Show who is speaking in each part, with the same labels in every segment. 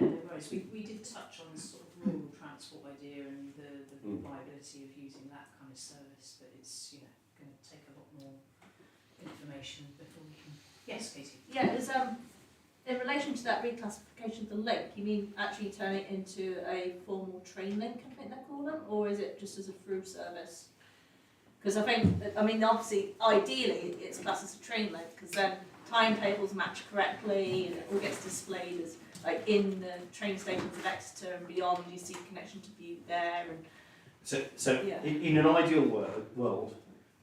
Speaker 1: roads, we, we did touch on the sort of rural transport idea and the, the
Speaker 2: Mm.
Speaker 1: viability of using that kind of service, but it's, you know, going to take a lot more information before we can. Yes, Katie.
Speaker 3: Yeah, it's, um, in relation to that reclassification of the link, you mean actually turn it into a formal train link, I think they call them, or is it just as a through service? Because I think, that- I mean, obviously, ideally, it's classed as a train link, because then timetables match correctly, and it all gets displayed as, like, in the train stations of Exeter and beyond, you see connection to view there, and,
Speaker 4: So, so
Speaker 3: Yeah.
Speaker 4: in, in an ideal wor- world,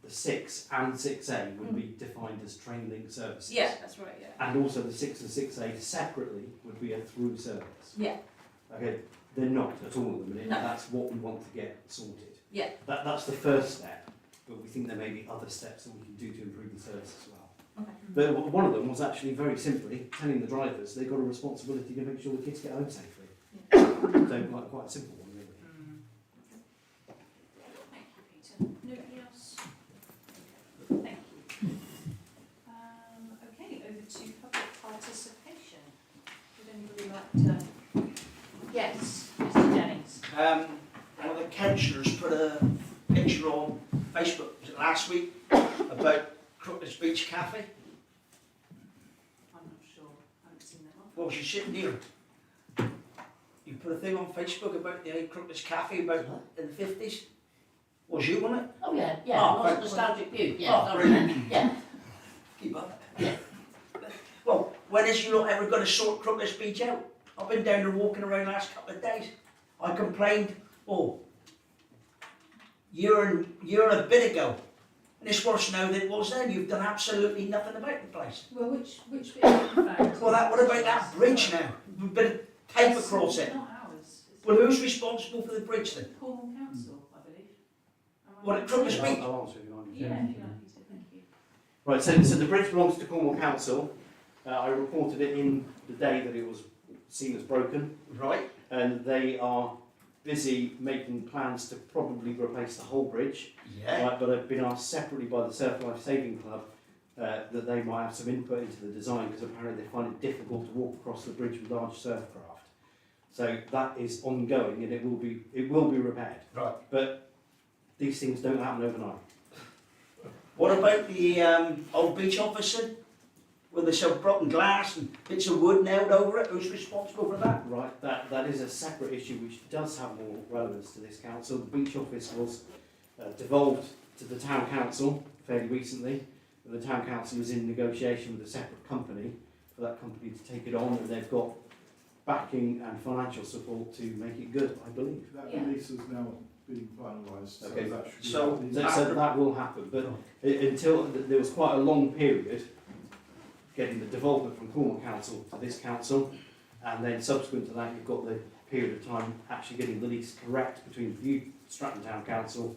Speaker 4: the six and six A would be defined as train link services.
Speaker 3: Mm. yeah, that's right, yeah.
Speaker 4: And also the six and six A separately would be a through service.
Speaker 3: Yeah.
Speaker 4: Okay, they're not at all at the minute, and
Speaker 3: No.
Speaker 4: that's what we want to get sorted.
Speaker 3: Yeah.
Speaker 4: That, that's the first step, but we think there may be other steps that we can do to improve the service as well.
Speaker 3: Okay.
Speaker 4: But w- one of them was actually very simply telling the drivers they've got a responsibility to make sure the kids get home safely. So like quite a simple one really.
Speaker 1: Mm. Thank you, Peter. Nobody else? Thank you. Um, okay, over to public participation. Would anybody like to? Yes, Mr Jennings.
Speaker 5: Um, one of the councillors put a picture on Facebook was it last week about Crooklyn's Beach Cafe.
Speaker 1: I'm not sure, I haven't seen that one.
Speaker 5: Well, she's sitting here. You put a thing on Facebook about the Crooklyn's Cafe about in the fifties. Was you on it?
Speaker 6: Oh yeah, yeah,
Speaker 5: Oh,
Speaker 6: lots
Speaker 5: right.
Speaker 6: of nostalgic view, yeah.
Speaker 5: Oh,
Speaker 6: sorry.
Speaker 5: brilliant.
Speaker 6: Yeah,
Speaker 5: Keep up. Well, when is you lot ever going to sort Crooklyn's Beach out? I've been down there walking around last couple of days. I complained, oh, year and year and a bit ago, and it's worse now than it was then. You've done absolutely nothing about the place.
Speaker 1: Well, which, which bit of the
Speaker 5: Well, that what about that bridge now? A bit of tape across it.
Speaker 1: Not ours, it's
Speaker 5: Well, who's responsible for the bridge then?
Speaker 1: Cornwall Council, I believe. Am I
Speaker 5: Well,
Speaker 1: right?
Speaker 5: it could be-
Speaker 4: I'll- I'll answer if you want.
Speaker 1: Yeah, if you like, Peter, thank you.
Speaker 4: Right, so, so the bridge belongs to Cornwall Council. Uh, I reported it in the day that it was seen as broken,
Speaker 5: Right.
Speaker 4: and they are busy making plans to probably replace the whole bridge.
Speaker 5: Yeah.
Speaker 4: Right, but I've been asked separately by the Surf Life Saving Club uh, that they might have some input into the design because apparently they find it difficult to walk across the bridge with large surf craft. So that is ongoing, and it will be it will be repaired.
Speaker 5: Right.
Speaker 4: But these things don't happen overnight.
Speaker 5: What about the um, old beach officer? Where they sell broken glass and bits of wood nailed over it. Who's responsible for that?
Speaker 4: Right, that, that is a separate issue which does have more relevance to this council. The beach office was uh, devolved to the town council fairly recently. The town council is in negotiation with a separate company for that company to take it on and they've got backing and financial support to make it good, I believe.
Speaker 7: That
Speaker 1: Yeah.
Speaker 7: release is now being finalised, so
Speaker 4: Okay.
Speaker 7: that should be.
Speaker 5: So-
Speaker 7: happening.
Speaker 4: So, so that will happen, but i- until, th- there was quite a long period getting the development from Cornwall Council to this council, and then subsequent to that, you've got the period of time actually getting the lease correct between the new Stratton Town Council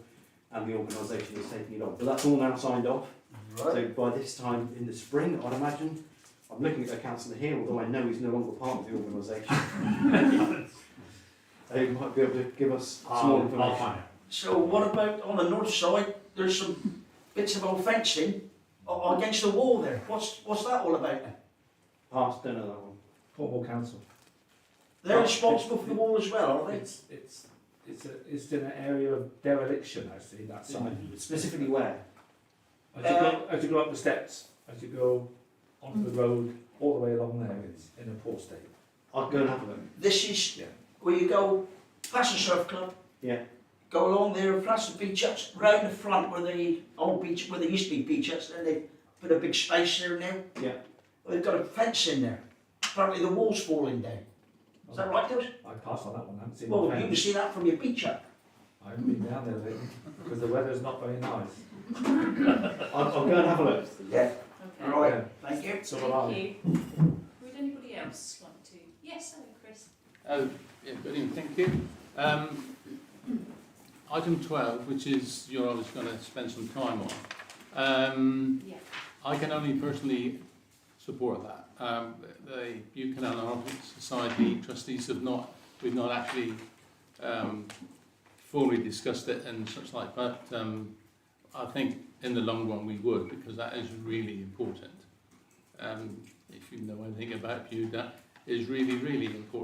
Speaker 4: and the organisation that's taking it on. But that's all now signed off, so by this time in the spring, I'd imagine, I'm looking at the councillor here, although I know he's no longer part of the organisation. They might be able to give us some more
Speaker 2: Ah, I'll, I'll
Speaker 4: information.
Speaker 2: find out.
Speaker 5: So what about on the north side? There's some bits of old fencing a- against the wall there. What's what's that all about? then?
Speaker 4: Pass, don't know that one.
Speaker 8: Cornwall Council.
Speaker 5: They're responsible for the wall as well, are they?
Speaker 8: It's, it's, it's, a, it's in an area of dereliction, I see,
Speaker 5: Mm.
Speaker 8: that side.
Speaker 4: Specifically where?
Speaker 8: As you go, as you go up the steps, as you go onto
Speaker 5: Mm.
Speaker 8: the road, all the way along there, it's in a poor state.
Speaker 4: I'll go and have a look.
Speaker 5: This is
Speaker 8: Yeah.
Speaker 5: where you go past the surf club.
Speaker 4: Yeah.
Speaker 5: Go along there and past the beach huts, round the front where the old beach, where there used to be beach huts, then they put a big space there now.
Speaker 4: Yeah.
Speaker 5: They've got a fence in there. Apparently the wall's falling down. Is that right, Dils?
Speaker 8: I passed on that one, I haven't seen
Speaker 5: Well,
Speaker 8: my
Speaker 5: you can
Speaker 8: friends.
Speaker 5: see that from your beach hut.
Speaker 8: I haven't been down there lately, because the weather's not very nice.
Speaker 4: I'll, I'll go and have a look.
Speaker 5: Yeah.
Speaker 1: Okay.
Speaker 5: Right.
Speaker 8: Yeah.
Speaker 5: Thank you.
Speaker 8: So will
Speaker 1: Thank
Speaker 8: I.
Speaker 1: you. Would anybody else want to? Yes, hello, Chris.
Speaker 9: Oh, yeah, brilliant, thank you. Um, item twelve, which is you're obviously gonna spend some time on. Um,
Speaker 1: Yeah.
Speaker 9: I can only personally support that. Um, the UK Anarchic Society trustees have not, we've not actually, um, formally discussed it and such like, but, um, I think in the long run we would, because that is really important. Um, if you know anything about you, that is really, really important.